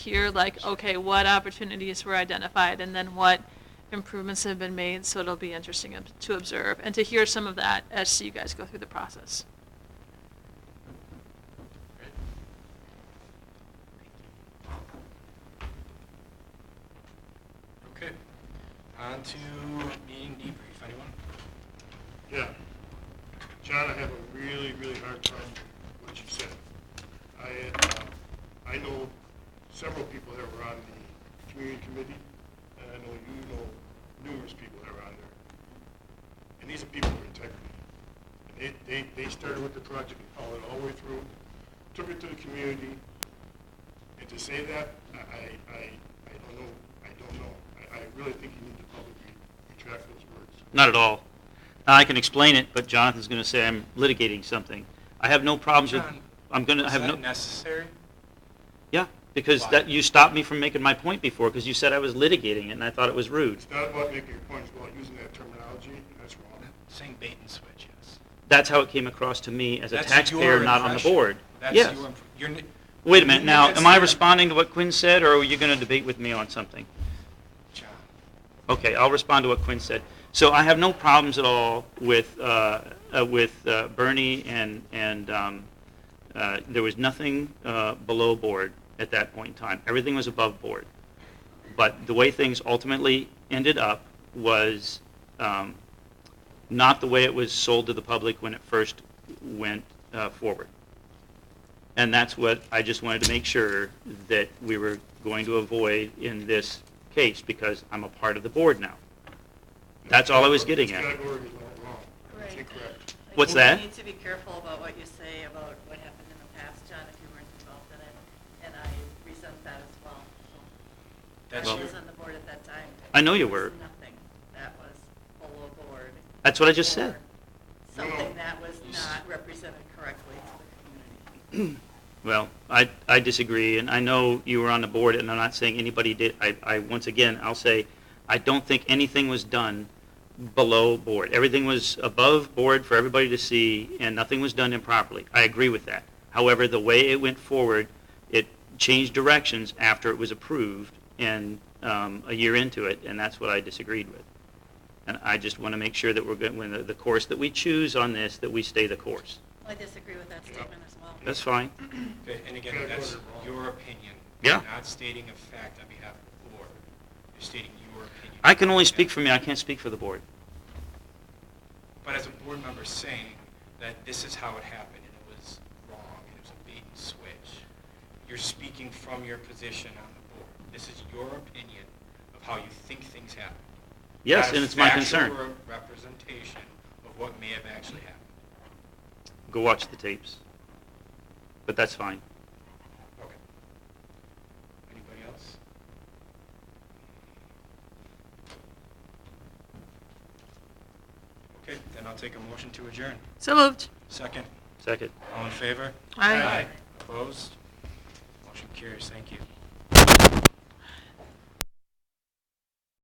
here, like, okay, what opportunities were identified and then what improvements have been made, so it'll be interesting ob- to observe and to hear some of that as you guys go through the process. Okay, on to meeting debrief, anyone? Yeah. John, I have a really, really hard time with what you said. I, uh, I know several people that were on the community committee, and I know you know numerous people that were on there. And these are people with integrity. And they, they, they started with the project and followed it all the way through, took it to the community. And to say that, I, I, I I don't know, I don't know. I, I really think you need to publicly retract those words. Not at all. Now, I can explain it, but Jonathan's going to say I'm litigating something. I have no problems with, John, I'm going to Is have that no, necessary? yeah, because Why? that, you stopped me from making my point before, because you said I was litigating it, and I thought it was rude. It's not about making your point, it's about using that terminology, and that's wrong. Saying bait and switch, yes. That's how it came across to me as a That's taxpayer, your not on the impression. board. That's Yes. your imp- you're n- Wait a minute, now, That's am I your- responding to what Quinn said, or are you going to debate with me on something? John, Okay, I'll respond to what Quinn said. So I have no problems at all with, uh, uh, with uh, Bernie and, and um, uh, there was nothing uh, below board at that point in time. Everything was above board. But the way things ultimately ended up was um, not the way it was sold to the public when it first went uh, forward. And that's what I just wanted to make sure that we were going to avoid in this case, because I'm a part of the board now. That's all I was getting It's at. categorically not wrong. It's Right. incorrect. Like, What's that? You need to be careful about what you say about what happened in the past, John, if you weren't involved in it, and I resent that as well. that's I your, was on the board at that time. I know you It was were. Nothing that was below board. That's what I just said. or No, no. Something that was You s- not represented correctly to the community. Well, I, I disagree, and I know you were on the board, and I'm not saying anybody did. I, I, once again, I'll say, I don't think anything was done below board. Everything was above board for everybody to see, and nothing was done improperly. I agree with that. However, the way it went forward, it changed directions after it was approved and, um, a year into it, and that's what I disagreed with. And I just want to make sure that we're good, when the, the course that we choose on this, that we stay the course. I disagree with that statement as well. That's fine. okay, and again, that's your opinion. Yeah. You're Not stating a fact on behalf of the board. You're stating your opinion. I can only speak for me. I can't speak for the board. But as a board member saying that this is how it happened and it was wrong and it was a bait and switch, you're speaking from your position on the board. This is your opinion of how you think things happened. Yes, Not and a it's my concern. factual re- representation of what may have actually happened. Go watch the tapes. But that's fine. Okay. Anybody else? Okay, then I'll take a motion to adjourn. So moved. Second, Second. all in favor? Aye. Opposed? Motion carries, thank you.